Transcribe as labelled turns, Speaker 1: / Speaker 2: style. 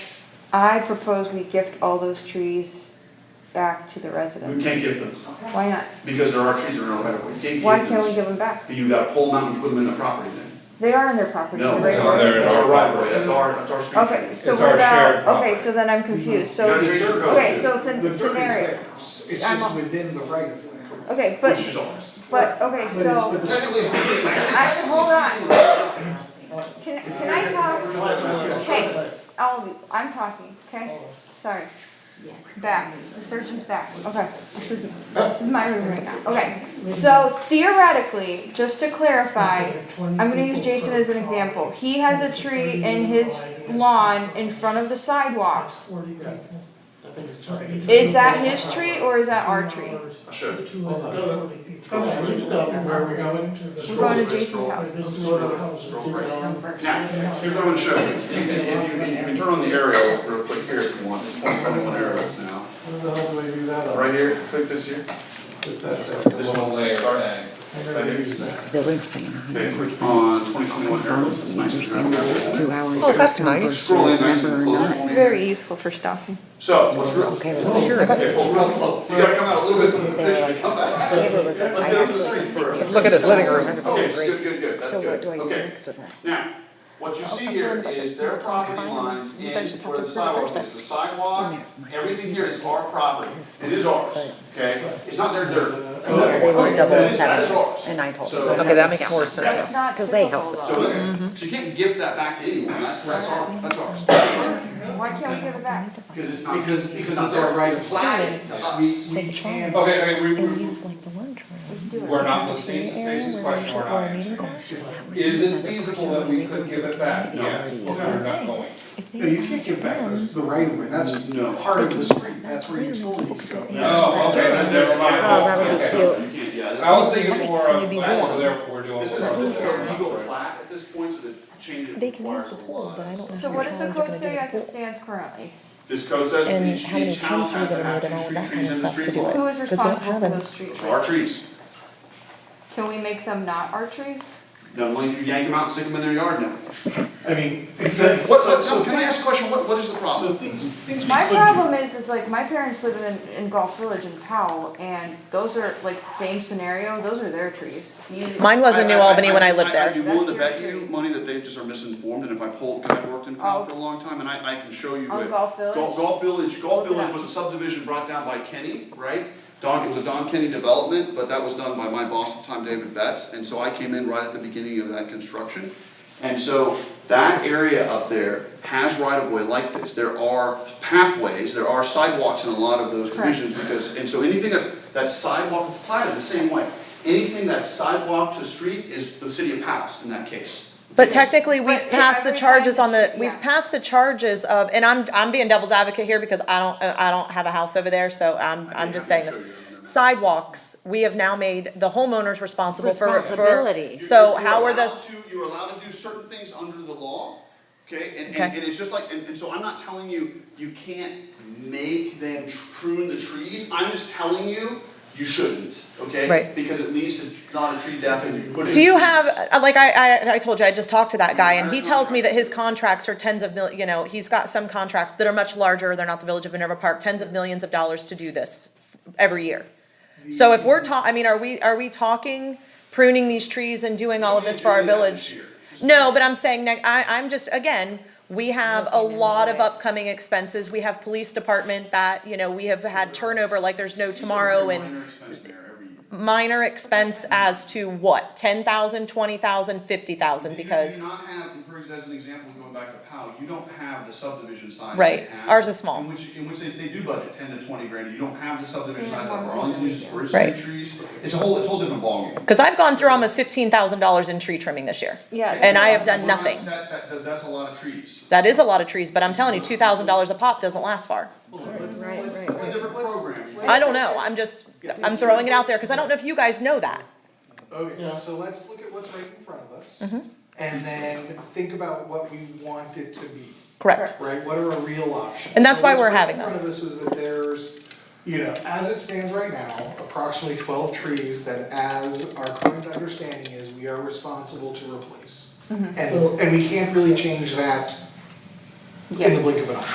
Speaker 1: I propose we gift all those trees back to the
Speaker 2: We
Speaker 1: residents.
Speaker 2: can't give them,
Speaker 1: Why not?
Speaker 2: because there are trees that are in our right of way, you can't give them.
Speaker 1: Why can't we give them back?
Speaker 2: You gotta pull them out and put them in the property then.
Speaker 1: They are in their property,
Speaker 2: No,
Speaker 1: right?
Speaker 2: that's our,
Speaker 3: They're in
Speaker 2: that's
Speaker 3: our
Speaker 2: our right of way, that's our, that's our street.
Speaker 1: Okay, so
Speaker 3: It's
Speaker 1: what
Speaker 3: our shared
Speaker 1: about,
Speaker 3: property.
Speaker 1: okay, so then I'm confused,
Speaker 2: You
Speaker 1: so,
Speaker 2: gotta change your code.
Speaker 1: okay, so it's
Speaker 4: The dirt
Speaker 1: a
Speaker 4: is
Speaker 1: scenario.
Speaker 4: there. It's
Speaker 1: I'm
Speaker 4: just
Speaker 1: a-
Speaker 4: within the right of way.
Speaker 1: Okay, but,
Speaker 2: Which is ours.
Speaker 1: but, okay,
Speaker 4: But it's-
Speaker 1: so,
Speaker 4: but technically speaking,
Speaker 1: I, hold on. Can, can I talk, okay, I'll, be- I'm talking, okay? Sorry.
Speaker 5: Yes.
Speaker 1: back, the surgeon's back, okay, this is, this is my room right now, okay. So theoretically, just to clarify, I'm gonna use Jason as an example, he has a tree in his lawn in front of the sidewalk. Is that his tree or is that our tree?
Speaker 2: I should.
Speaker 6: Where are we going?
Speaker 1: We're going to Jason's house,
Speaker 2: Now, here's what I'm gonna show you, you can, if you, you can turn on the aerial real quick here if you want, twenty twenty-one aerials now.
Speaker 6: Where the hell do I do that on?
Speaker 2: Right here, click this here,
Speaker 6: Put that there.
Speaker 3: This little layer thing.
Speaker 6: I never use that.
Speaker 7: building plan.
Speaker 2: okay, click on twenty twenty-one aerials, it's nice and
Speaker 7: Understand that it's
Speaker 2: graphic.
Speaker 7: two hours.
Speaker 8: Oh, that's
Speaker 7: to
Speaker 8: nice.
Speaker 7: accomplish the
Speaker 2: Scroll in nice and
Speaker 7: number
Speaker 2: close.
Speaker 7: nine.
Speaker 1: very useful for stalking.
Speaker 2: So, what's real?
Speaker 7: Okay,
Speaker 8: Oh,
Speaker 7: well, sure. but
Speaker 2: Okay, pull real close, you gotta come out a little bit from the picture, and come back.
Speaker 7: Neighbor was like,
Speaker 2: Let's
Speaker 7: I
Speaker 2: get up the
Speaker 7: actually,
Speaker 2: street first.
Speaker 8: Look at his living room, hundred
Speaker 2: Okay,
Speaker 8: percent
Speaker 2: good,
Speaker 8: agree.
Speaker 2: good, good, that's
Speaker 7: Oh, so
Speaker 2: good,
Speaker 7: what do I do
Speaker 2: okay.
Speaker 7: next with that?
Speaker 2: Now, what you see here is their property lines is where the sidewalk is, the sidewalk, everything here is our property, it is ours, okay? It's not their
Speaker 3: Uh,
Speaker 2: dirt.
Speaker 7: Yeah, they were
Speaker 2: That
Speaker 7: double
Speaker 2: is- that is
Speaker 7: seven,
Speaker 2: ours.
Speaker 7: and I told
Speaker 2: So-
Speaker 7: them.
Speaker 8: Okay, that makes more sense.
Speaker 1: That's not
Speaker 7: Because they help
Speaker 1: typical
Speaker 7: us.
Speaker 2: So,
Speaker 1: though.
Speaker 2: look, so you can't give that back to anyone, that's, that's our, that's ours,
Speaker 1: Why can't we give it back?
Speaker 2: because it's not.
Speaker 4: Because, because it's our right of way.
Speaker 2: Flag to
Speaker 4: We,
Speaker 2: us.
Speaker 4: we can't.
Speaker 3: Okay, okay, we,
Speaker 5: And
Speaker 3: we,
Speaker 5: use like the lunchroom.
Speaker 3: we're not listening to Stacy's question, we're not answering. Is it feasible that we could give it back?
Speaker 2: No.
Speaker 3: Yes, but we're not going.
Speaker 5: If they
Speaker 4: No, you
Speaker 5: don't
Speaker 4: can't
Speaker 5: ask
Speaker 4: give back
Speaker 5: them,
Speaker 4: the, the right of way, that's
Speaker 2: No.
Speaker 4: part of the street, that's where utilities go.
Speaker 3: Oh, okay, then never mind.
Speaker 7: Oh, that would be
Speaker 3: Okay.
Speaker 7: cute.
Speaker 2: You can't, yeah, that's.
Speaker 3: I was thinking more
Speaker 5: It'd
Speaker 3: of,
Speaker 5: be
Speaker 3: that, so
Speaker 5: warm.
Speaker 3: therefore we're doing.
Speaker 2: This is,
Speaker 3: more of
Speaker 2: this is a
Speaker 3: this.
Speaker 2: legal flat at this point, so the change it
Speaker 5: They can use
Speaker 2: requires
Speaker 5: the
Speaker 2: the
Speaker 5: pool, but I don't know
Speaker 1: So
Speaker 5: how
Speaker 1: what
Speaker 5: many
Speaker 1: does the
Speaker 5: times they're
Speaker 1: code
Speaker 5: gonna do
Speaker 1: say
Speaker 5: the
Speaker 1: as it
Speaker 5: pool.
Speaker 1: stands currently?
Speaker 2: This code says
Speaker 5: And
Speaker 2: each,
Speaker 5: how many
Speaker 2: each house
Speaker 5: times
Speaker 2: has
Speaker 5: we're gonna
Speaker 2: to have
Speaker 5: need and all
Speaker 2: two
Speaker 5: of
Speaker 2: street
Speaker 5: that kind of
Speaker 2: trees in the
Speaker 5: stuff to
Speaker 2: street
Speaker 5: do it.
Speaker 1: Who is
Speaker 5: Because we don't
Speaker 1: responsible
Speaker 5: have
Speaker 1: for
Speaker 5: any.
Speaker 1: those trees?
Speaker 2: It's our trees,
Speaker 1: Can we make them not our trees?
Speaker 2: now unless you yank them out and stick them in their yard now.
Speaker 4: I mean,
Speaker 2: What, what,
Speaker 4: so
Speaker 2: so can I ask a question, what, what is the
Speaker 4: So
Speaker 2: problem?
Speaker 4: things, things we could do.
Speaker 1: My problem is, is like my parents live in, in Golf Village in Powell, and those are like same scenario, those are their trees. You-
Speaker 8: Mine was in New Albany when I lived
Speaker 2: I'd
Speaker 8: there.
Speaker 2: be willing to bet you money that they just are misinformed, and if I pull, 'cause I've worked in Powell for a long time, and I, I can show you.
Speaker 1: Oh. On
Speaker 2: it.
Speaker 1: Gulf Village?
Speaker 2: Gulf, Gulf Village, Gulf
Speaker 1: Look it
Speaker 2: Village
Speaker 1: up.
Speaker 2: was a subdivision brought down by Kenny, right? Don, it was a Don Kenny development, but that was done by my boss at the time, David Betts, and so I came in right at the beginning of that construction. And so that area up there has right of way like this, there are pathways, there are sidewalks in a lot of those
Speaker 1: Correct.
Speaker 2: divisions because, and so anything that's, that's sidewalk, it's platted the same way. Anything that's sidewalk to street is the city of Palos in that case.
Speaker 8: But technically, we've
Speaker 1: But if
Speaker 8: passed the
Speaker 1: every
Speaker 8: charges
Speaker 1: time-
Speaker 8: on the,
Speaker 1: yeah.
Speaker 8: we've passed the charges of, and I'm, I'm being devil's advocate here because I don't, I don't have a house over there, so I'm, I'm just saying this. Sidewalks, we have now made the homeowners responsible for, for,
Speaker 5: Responsibility.
Speaker 8: so
Speaker 2: You're-
Speaker 8: how
Speaker 2: you're
Speaker 8: are the?
Speaker 2: allowed to- You're allowed to do certain things under the law, okay, and, and,
Speaker 8: Okay.
Speaker 2: and it's just like, and, and so I'm not telling you, you can't make them prune the trees, I'm just telling you, you shouldn't, okay?
Speaker 8: Right.
Speaker 2: Because it leads to not a tree death and you put it.
Speaker 8: Do you have, uh, like, I, I, I told you, I just talked to that guy, and he tells me that his contracts are tens of mil, you know, he's got some contracts that are much larger, they're not the Village of Minerva Park, tens of millions of dollars to do this every year. So if we're ta, I mean, are we, are we talking pruning these trees and doing all of this for our
Speaker 2: You're doing that this
Speaker 8: village?
Speaker 2: year.
Speaker 8: No, but I'm saying, neg- I, I'm just, again, we have a lot of upcoming expenses, we have police department that, you know, we have had turnover like there's no tomorrow, and
Speaker 2: Minor expense there every year.
Speaker 8: minor expense as to what, ten thousand, twenty thousand, fifty thousand, because,
Speaker 2: You do not have, and for ex- as an example, going back to Powell, you don't have the subdivision size
Speaker 8: Right.
Speaker 2: they have.
Speaker 8: Ours is small.
Speaker 2: In which, in which they, they do budget ten to twenty grand, you don't have the subdivision size of Arlington, it's for
Speaker 8: Right.
Speaker 2: trees, it's a whole, it's a whole different ballgame.
Speaker 8: cause I've gone through almost fifteen thousand dollars in tree trimming this year.
Speaker 1: Yeah.
Speaker 8: And I have done
Speaker 2: We're not-
Speaker 8: nothing.
Speaker 2: That, that- that- that's a lot of trees.
Speaker 8: That is a lot of trees, but I'm telling you, two thousand dollars a pop doesn't last far.
Speaker 2: It's
Speaker 5: Right,
Speaker 2: it's
Speaker 5: right,
Speaker 2: a different program.
Speaker 8: I don't know, I'm just, I'm throwing it out there, cause I don't know if you guys know that.
Speaker 4: Okay, so let's look at what's right in front of us.
Speaker 1: Mm-hmm.
Speaker 4: And then think about what we want it to be,
Speaker 8: Correct,
Speaker 4: right? What are our real options?
Speaker 8: And that's
Speaker 4: So
Speaker 8: why
Speaker 4: what's
Speaker 8: we're
Speaker 4: right
Speaker 8: having
Speaker 4: in front of us is that there's, you know, as it stands right now, approximately twelve trees that as our current understanding is, we are responsible
Speaker 8: Mm-hmm.
Speaker 4: to replace. And, and we can't really change that in the blink of an eye.